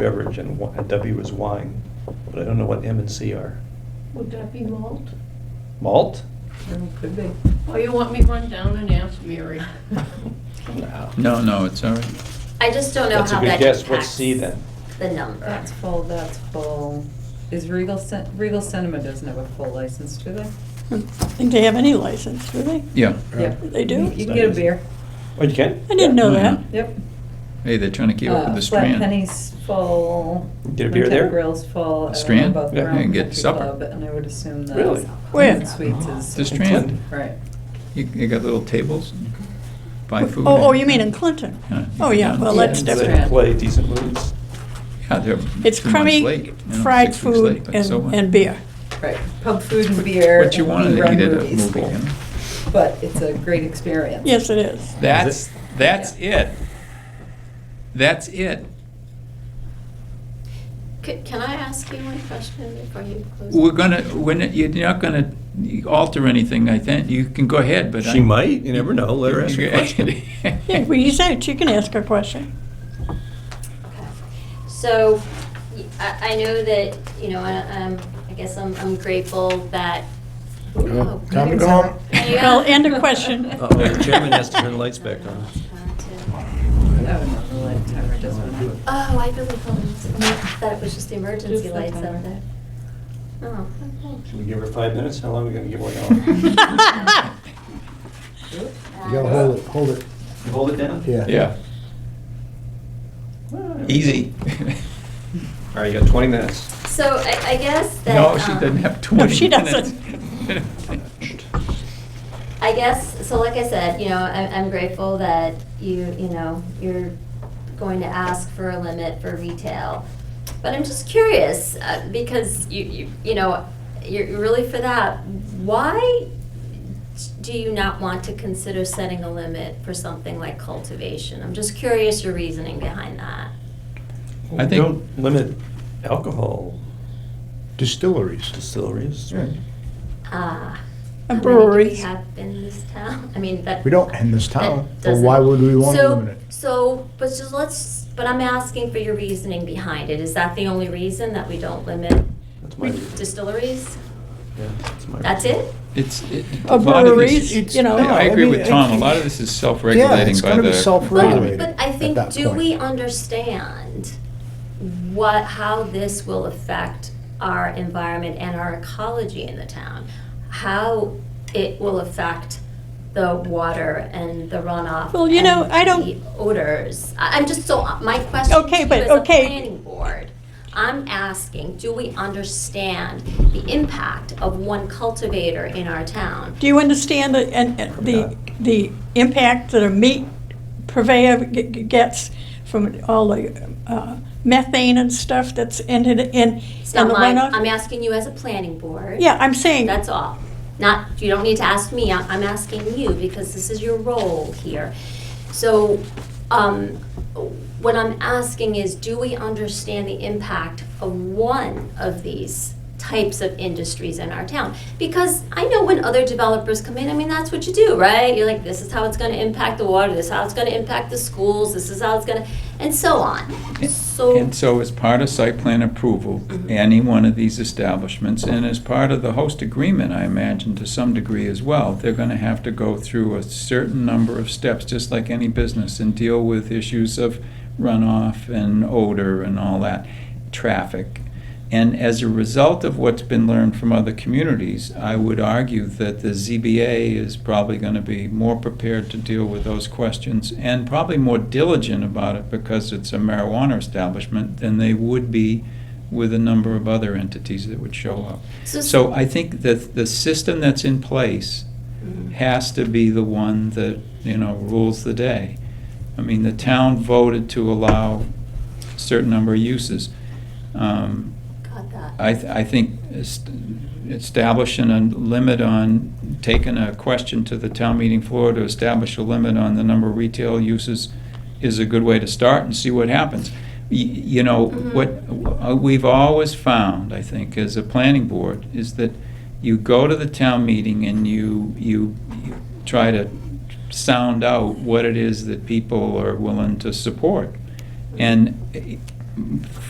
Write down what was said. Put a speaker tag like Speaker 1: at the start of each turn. Speaker 1: beverage and wi- and W is wine, but I don't know what M and C are.
Speaker 2: Would that be malt?
Speaker 1: Malt?
Speaker 3: Oh, Could be.
Speaker 2: Oh, you want me to run down and ask Mary?
Speaker 1: No.
Speaker 4: No, no, it's all right.
Speaker 5: I just don't know
Speaker 1: That's a
Speaker 5: how
Speaker 1: good
Speaker 5: that
Speaker 1: guess. What's
Speaker 5: impacts
Speaker 1: C then?
Speaker 5: the number.
Speaker 3: That's full, that's full. Is Regal, Cin- Regal Cinema doesn't have a full license, do they?
Speaker 6: I don't think they have any license, do they?
Speaker 4: Yeah.
Speaker 3: Yep.
Speaker 6: They
Speaker 3: You
Speaker 6: do?
Speaker 3: you can get a beer,
Speaker 1: Oh, you can?
Speaker 6: I didn't know that.
Speaker 3: yep.
Speaker 4: Hey, they're trying to keep up with
Speaker 3: Uh,
Speaker 4: the Strand.
Speaker 3: Flat Penny's full.
Speaker 1: Get a beer
Speaker 3: Montauk
Speaker 1: there?
Speaker 3: Grill's full. I don't know
Speaker 4: Strand?
Speaker 3: about the
Speaker 1: Yeah,
Speaker 3: Round
Speaker 4: you can get
Speaker 3: Country
Speaker 4: supper. Oh,
Speaker 3: Club, And I would assume that.
Speaker 1: Really?
Speaker 6: Where?
Speaker 3: Sweets is.
Speaker 4: The Strand.
Speaker 3: Right.
Speaker 4: You, you got little tables, and buy
Speaker 6: Oh,
Speaker 4: food.
Speaker 6: oh,
Speaker 4: and-
Speaker 6: you mean in Clinton?
Speaker 4: Yeah, you
Speaker 6: Oh,
Speaker 4: can
Speaker 6: yeah,
Speaker 4: go
Speaker 6: well,
Speaker 4: down.
Speaker 6: that's
Speaker 1: Yeah, they
Speaker 6: different.
Speaker 1: Play decent movies.
Speaker 4: Yeah, they're
Speaker 6: It's
Speaker 4: two months late,
Speaker 6: crummy
Speaker 4: you know,
Speaker 6: fried
Speaker 4: six weeks late,
Speaker 6: food
Speaker 4: but
Speaker 6: and,
Speaker 4: so what?
Speaker 6: and beer.
Speaker 3: Right, pub food and beer.
Speaker 4: What you
Speaker 3: and
Speaker 4: wanted to
Speaker 3: run
Speaker 4: eat at a
Speaker 3: movies.
Speaker 4: movie, you know?
Speaker 3: But it's a great experience.
Speaker 6: Yes, it is.
Speaker 4: That's, that's
Speaker 3: Yeah.
Speaker 4: it. That's it.
Speaker 5: Could- Can I ask you one question before you close?
Speaker 4: We're gonna, we're not, you're not gonna alter anything, I think. You can go ahead, but I.
Speaker 1: She might. You never know. Let her ask a question.
Speaker 6: Yeah, well, you said it, you can ask a question.
Speaker 5: Okay. So, y- I, I know that, you know, I, um, I guess I'm, I'm grateful that.
Speaker 7: Yeah,
Speaker 5: Oh,
Speaker 7: Time to
Speaker 5: goodness.
Speaker 7: go home.
Speaker 5: Yeah.
Speaker 6: Well, and a question.
Speaker 1: Uh-oh, the chairman has to turn the lights back on.
Speaker 3: Oh, no, the light timer does one out.
Speaker 5: Oh, I really thought it- that it was just the emergency
Speaker 3: Just the
Speaker 5: lights
Speaker 3: timer.
Speaker 5: up there. Oh, okay.
Speaker 1: Should we give her five minutes? How long are we gonna give her?
Speaker 7: You gotta hold it, hold it,
Speaker 1: Hold it down?
Speaker 7: yeah.
Speaker 4: Yeah. Easy.
Speaker 1: All right, you got 20 minutes.
Speaker 5: So I, I guess that.
Speaker 4: No, she
Speaker 5: um,
Speaker 4: doesn't have 20 minutes.
Speaker 6: she
Speaker 5: I guess, so like I said, you know, I'm, I'm grateful that you, you know, you're going to ask for a limit for retail. But I'm just curious, uh, because you, you, you know, you're you're really for that. Why do you not want to consider setting a limit for something like cultivation? I'm just curious your reasoning behind that.
Speaker 4: I
Speaker 1: We
Speaker 4: think-
Speaker 1: Don't limit alcohol
Speaker 7: Distilleries.
Speaker 1: distilleries.
Speaker 5: Ah,
Speaker 6: A
Speaker 5: how many do
Speaker 6: brewery.
Speaker 5: we have in this town? I mean, that.
Speaker 7: We don't in this
Speaker 5: that
Speaker 7: town, but
Speaker 5: doesn't-
Speaker 7: why would we want to
Speaker 5: So-
Speaker 7: limit it?
Speaker 5: So, but just let's, but I'm asking for your reasoning behind it. Is that the only reason that we don't limit
Speaker 1: That's my reason.
Speaker 5: distilleries?
Speaker 1: Yeah, that's my
Speaker 5: That's
Speaker 1: reason.
Speaker 5: it?
Speaker 4: It's, it.
Speaker 6: A
Speaker 4: a lot of this-
Speaker 6: breweries,
Speaker 7: it's-
Speaker 6: you know.
Speaker 7: no,
Speaker 4: I agree
Speaker 7: mean,
Speaker 4: with
Speaker 7: it-
Speaker 4: Tom, a lot of this is
Speaker 7: Yeah,
Speaker 4: self-regulating
Speaker 7: it's
Speaker 4: by
Speaker 7: gonna be
Speaker 4: the.
Speaker 7: self-regulated.
Speaker 5: But I
Speaker 7: at
Speaker 5: think,
Speaker 7: that
Speaker 5: do
Speaker 7: point.
Speaker 5: we understand what, how this will affect our environment and our ecology in the town? How it will affect the water and the runoff?
Speaker 6: Well, you know,
Speaker 5: and
Speaker 6: I don't-
Speaker 5: The odors. I- I'm just so, my question to
Speaker 6: Okay,
Speaker 5: you
Speaker 6: but-
Speaker 5: as a
Speaker 6: okay.
Speaker 5: planning board, I'm asking, do we understand the impact of one cultivator in our town?
Speaker 6: Do you understand the, and, and the, the impact that a meat purveyor g- g- gets from all the uh, methane and stuff that's in, in, in
Speaker 5: It's
Speaker 6: in
Speaker 5: not
Speaker 6: the
Speaker 5: mine.
Speaker 6: runoff?
Speaker 5: I'm asking you as a planning board.
Speaker 6: Yeah, I'm saying,
Speaker 5: That's all. Not, you don't need to ask me, I- I'm asking you because this is your role here. So, um, what I'm asking is, do we understand the impact of one of these types of industries in our town? Because I know when other developers come in, I mean, that's what you do, right? You're like, this is how it's gonna impact the water, this is how it's gonna impact the schools, this is how it's gonna, and so on. So.
Speaker 4: And so as part of site plan approval, any one of these establishments, and as part of the host agreement, I imagine to some degree as well, they're gonna have to go through a certain number of steps, just like any business, and deal with issues of runoff and odor and all that, traffic. And as a result of what's been learned from other communities, I would argue that the ZBA is probably going to be more prepared to deal with those questions and probably more diligent about it because it's a marijuana establishment than they would be with a number of other entities that would show up.
Speaker 5: So-
Speaker 4: So I think that the system that's in place has to be the one that, you know, rules the day. I mean, the town voted to allow a certain number of uses. Um,
Speaker 5: Got that.
Speaker 4: I, th- I think est- establishing a limit on, taking a question to the town meeting floor to establish a limit on the number of retail uses is a good way to start and see what happens. Y- You know, what uh, we've always found, I think, as a planning board, is that you go to the town meeting and you, you you try to sound out what it is that people are willing to support. And eh,